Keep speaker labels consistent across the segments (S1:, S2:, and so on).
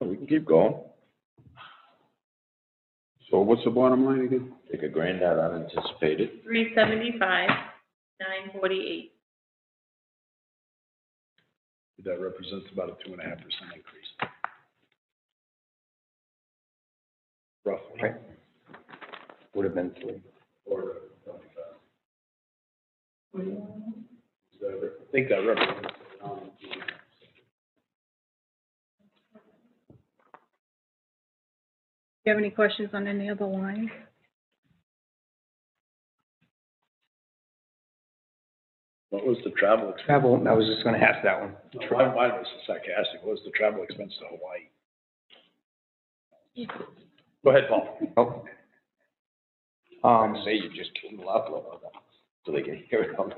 S1: We can keep going,
S2: So what's the bottom line again?
S1: take a grand out unanticipated.
S3: Three seventy-five, nine forty-eight.
S4: That represents about a two and a half percent increase. Roughly.
S5: Right. would have been three.
S4: Or twenty-five. So I think that represents. um,
S6: Do you have any questions on any of the lines?
S4: What was the travel expense?
S5: Travel, I was just gonna ask that one.
S4: My mind was sarcastic. What was the travel expense to Hawaii? Go ahead, Paul.
S5: Oh. Um,
S1: Say you just keep them up, up, up, so they can hear it on the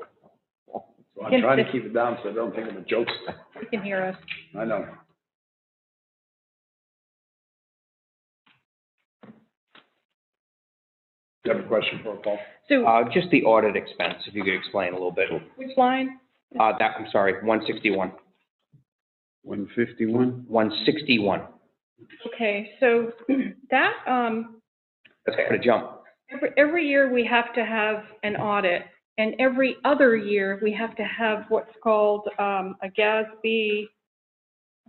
S4: So I'm trying to keep it down so I don't think of the jokes.
S6: You can hear us.
S4: I know. Do you have a question for Paul?
S6: So,
S5: uh, just the audit expense, if you could explain a little bit.
S6: which line?
S5: Uh, that, I'm sorry, one sixty-one,
S2: One fifty-one?
S5: one sixty-one.
S6: Okay, so that, um,
S5: That's quite a jump.
S6: every, every year we have to have an audit. And every other year, we have to have what's called, um, a GASB,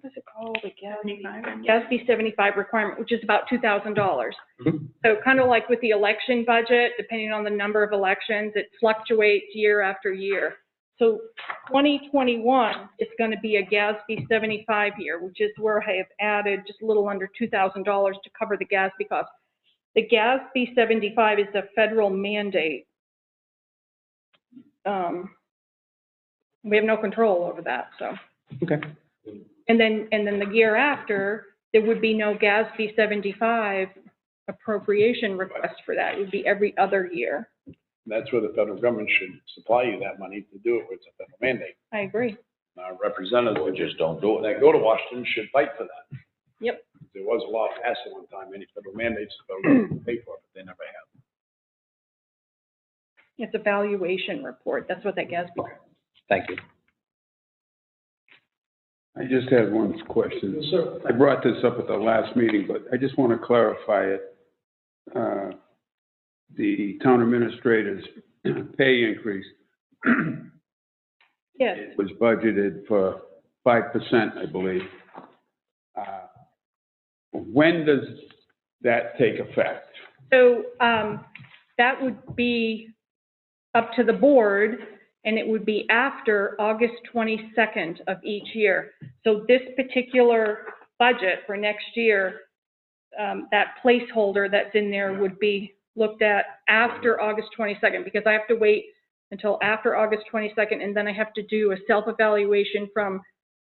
S6: what is it called? A GASB? GASB seventy-five requirement, which is about two thousand dollars.
S5: Mhm.
S6: So kind of like with the election budget, depending on the number of elections, it fluctuates year after year. So twenty twenty-one is gonna be a GASB seventy-five year, which is where I have added just a little under two thousand dollars to cover the GASB cost. The GASB seventy-five is a federal mandate. Um, we have no control over that, so.
S5: Okay.
S6: And then, and then the year after, there would be no GASB seventy-five appropriation request for that. It would be every other year.
S4: That's where the federal government should supply you that money to do it. It's a federal mandate.
S6: I agree.
S4: Our representatives
S1: Or just don't do it.
S4: that go to Washington should fight for that.
S6: Yep.
S4: There was a law passed at one time, any federal mandates, the federal government would pay for it, but they never have.
S6: It's a valuation report. That's what that GASB.
S5: Thank you.
S2: I just have one question.
S4: sir.
S2: I brought this up at the last meeting, but I just want to clarify it. Uh, The town administrator's pay increase
S6: Yes,
S2: was budgeted for five percent, I believe. Uh, When does that take effect?
S6: so, um, that would be up to the board and it would be after August twenty-second of each year. So this particular budget for next year, um, that placeholder that's in there would be looked at after August twenty-second because I have to wait until after August twenty-second and then I have to do a self-evaluation from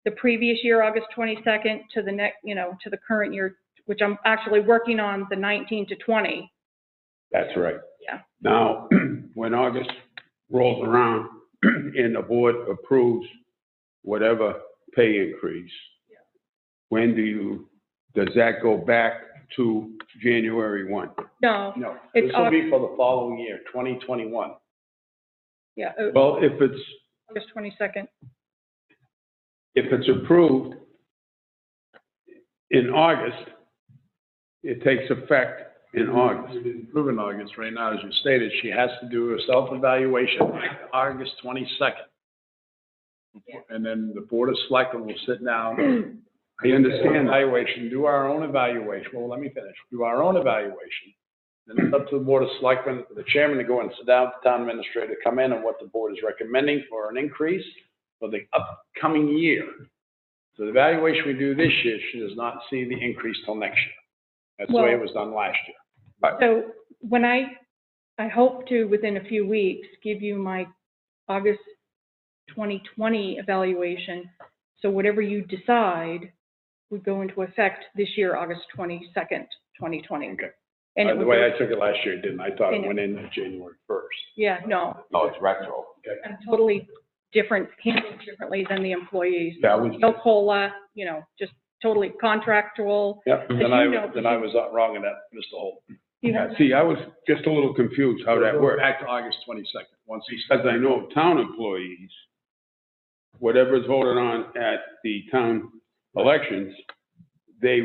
S6: the previous year, August twenty-second, to the next, you know, to the current year, which I'm actually working on the nineteen to twenty.
S2: That's right.
S6: Yeah.
S2: Now, when August rolls around and the board approves whatever pay increase, when do you, does that go back to January one?
S6: No,
S4: No,
S6: It's
S4: this will be for the following year, twenty twenty-one.
S6: yeah, uh,
S2: Well, if it's,
S6: August twenty-second.
S2: if it's approved in August, it takes effect in August.
S4: Proven August, right now, as you stated, she has to do a self-evaluation August twenty-second. And then the Board of Selectmen will sit down,
S2: I understand that.
S4: evaluation, do our own evaluation, well, let me finish, do our own evaluation. Then it's up to the Board of Selectmen, for the chairman to go and sit down, with the town administrator, come in and what the board is recommending for an increase for the upcoming year. So the evaluation we do this year, she does not see the increase till next year. That's the way it
S6: Well-
S4: was done last year.
S6: So when I, I hope to, within a few weeks, give you my August 2020 evaluation. So whatever you decide would go into effect this year, August 22nd, 2020.
S4: Okay.
S6: And
S4: By
S6: it
S4: the
S6: would,
S4: way,
S6: go-
S4: I took it last year, didn't I? I thought it
S6: And it-
S4: went in January first.
S6: yeah, no,
S4: Oh,
S1: No, it's retro.
S6: I'm totally different, handled differently than the employees.
S2: That was,
S6: No COLA, you know, just totally contractual.
S4: Yep,
S6: As
S4: then
S6: you
S4: I,
S6: know-
S4: then I was wrong in that, Mr. Holt.
S6: You have-
S2: see, I was just a little confused how Oh, that works.
S4: Back to August twenty-second, once he
S2: because I know of town employees, whatever's voted on at the town elections